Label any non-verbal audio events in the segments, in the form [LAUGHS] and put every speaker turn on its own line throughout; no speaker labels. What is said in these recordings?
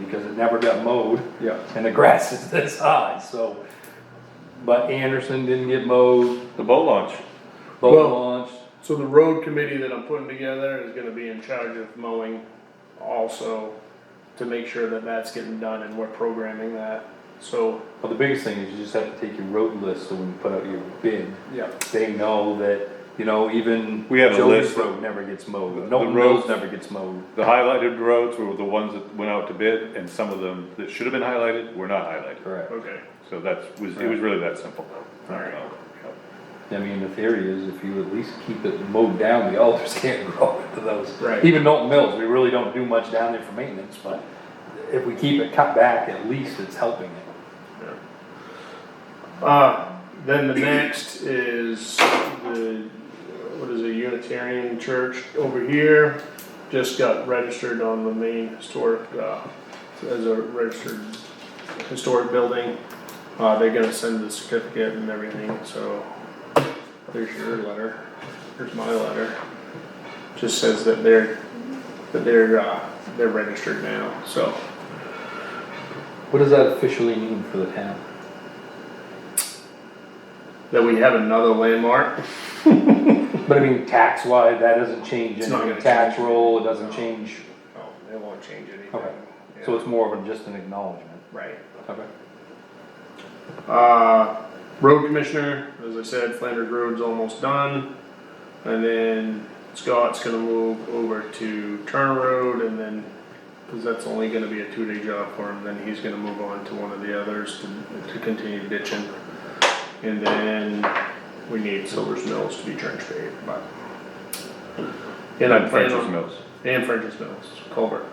because it never got mowed,
yeah,
and the [LAUGHS] grass is this high, so. But Anderson didn't get mowed,
The boat launch.
boat
Well-
launch,
So the road committee that I'm putting together is gonna be in charge of mowing also to make sure that that's getting done and we're programming that. So,
well, the biggest thing is you just have to take your road list, so when you put out your bid,
yeah.
they know that, you know, even.
We have a
Joey's
list.
Road never gets mowed,
The
Norton Mills
roads-
never gets mowed.
The highlighted roads were the ones that went out to bid, and some of them that should have been highlighted were not highlighted.
Correct.
okay,
So that's, was, it was really that simple.
Alright.
I mean, the theory is if you at least keep it mowed down, the alders [LAUGHS] can't grow into those.
Right.
Even Norton Mills, we really don't do much down there for maintenance, but if we keep it cut back, at least it's helping it.
uh, then the next is the, what is it, Unitarian Church over here. Just got registered on the main historic, uh, as a registered historic building. Uh, they're gonna send the certificate and everything, so there's your letter, here's my letter. Just says that they're, that they're, uh, they're registered now, so.
What does that officially mean for the town?
That we have another landmark.
But I mean, tax wise, that doesn't change
It's not
anything,
gonna
tax
change.
roll, it doesn't
No.
change,
Oh, they won't change anything.
Okay.
Yeah.
so it's more of a- just an acknowledgement.
Right.
Okay.
Uh, road commissioner, as I said, Flanders Road's almost done. And then Scott's gonna move over to Turner Road and then, cause that's only gonna be a two-day job for him, then he's gonna move on to one of the others to, to continue ditching. And then we need Silver's Mills to be trench paved, but. And I plan
And French's
on.
Mills.
and French's Mills culvert.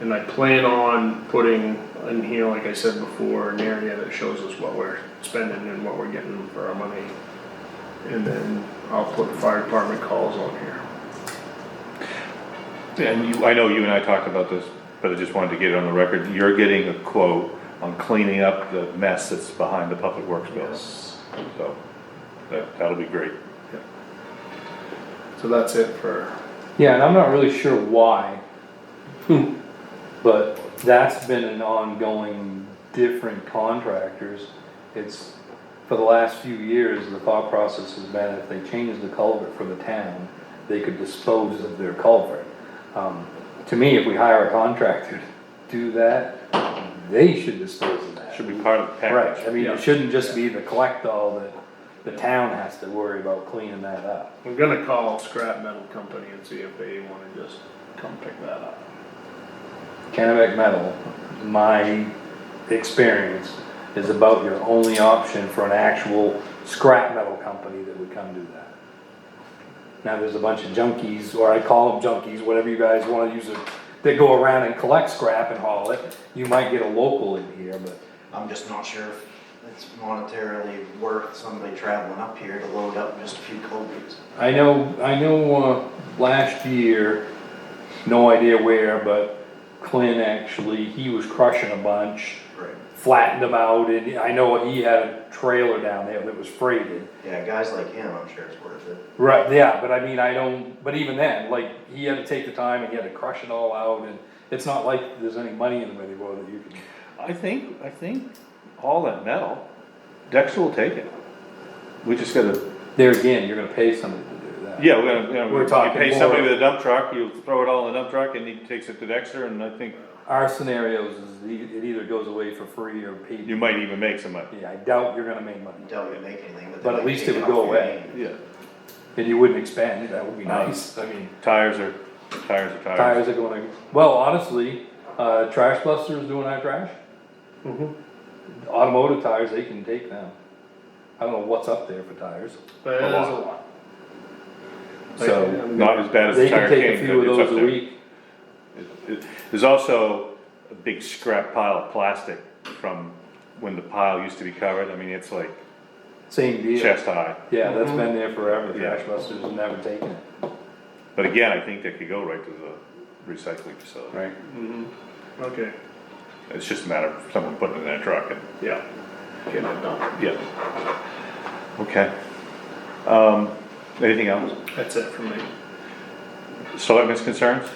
And I plan on putting in here, like I said before, an area that shows us what we're spending and what we're getting for our money. And then I'll put fire department calls on here.
And you, I know you and I talked about this, but I just wanted to get it on the record. You're getting a quote on cleaning up the mess that's behind the public works bills. So that, that'll be great.
So that's it for,
Yeah, and I'm not really sure why.
Hmm.
But that's been an ongoing different contractors. It's, for the last few years, the thought process has been if they change the culvert for the town, they could dispose of their culvert. Um, To me, if we hire a contractor to do that, they should dispose of that.
Should be part of the package.
Right, I mean, it shouldn't just be the collect all that the town has to worry about cleaning that up.
I'm gonna call scrap metal company and see if they wanna just come pick that up.
Kennebec metal, my experience, is about your only option for an actual scrap metal company that would come do that. Now, there's a bunch of junkies, or I call them junkies, whatever you guys wanna use it, that go around and collect scrap and haul it. You might get a local in here, but
I'm just not sure if it's monetarily worth somebody traveling up here to load up just a few culverts.
I know, I know, uh, last year, no idea where, but Clint actually, he was crushing a bunch.
Right.
flattened them out, and I know he had a trailer down there that was freighted.
Yeah, guys like him, I'm sure it's worth it.
Right, yeah, but I mean, I don't, but even then, like, he had to take the time and he had to crush it all out, and it's not like there's any money in them anymore that you can.
I think, I think all that metal, Dexter will take it. We just gotta,
There again, you're gonna pay somebody to do that.
yeah, we're gonna, you know,
We're
you
talking
pay somebody
more-
with a dump truck, you throw it all in a dump truck and he takes it to Dexter and I think
Our scenarios is the- it either goes away for free or paid.
you might even make some money.
Yeah, I doubt you're gonna make money,
Don't you make anything, but. they
But at
might
least it
take
would
off
go
your
away.
name.
Yeah,
and you wouldn't expand it, that would be
Uh-huh.
nice, I mean.
tires are, tires are tires.
Tires are going, well, honestly, uh, Trash Buster is doing our trash. Automotive tires, they can take them. I don't know what's up there for tires,
But it is a lot. Like,
so
I'm
Not as bad as
they
the
can
tire
take a
king,
few
but
of
it's up
those a
there.
week.
It- it- There's also a big scrap pile of plastic from when the pile used to be covered, I mean, it's like
Same deal,
chest high.
yeah, that's been there forever,
Yeah.
Trash Buster's have never taken it.
But again, I think they could go right to the recycling facility.
Right.
Okay,
It's just a matter of someone putting it in their truck and
yeah. Getting it done.
Yeah. Okay. Um, anything else?
That's it for me.
Selectmen's concerns?